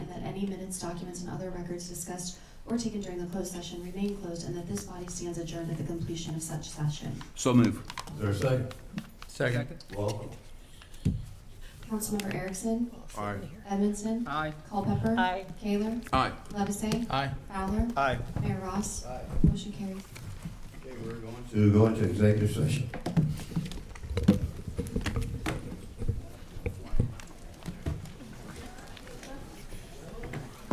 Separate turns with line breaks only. any minutes, documents, and other records discussed or taken during the closed session remain closed, and that this body stands adjourned at the completion of such session.
So move.
Is there a second?
Second.
Welcome.
Councilmember Erickson,
Aye.
Edmondson,
Aye.
Culpepper,
Aye.
Taylor,
Aye.
Levesey,
Aye.
Fowler,
Aye.
Mayor Ross.
Aye.
Motion carries.
To go into executive session.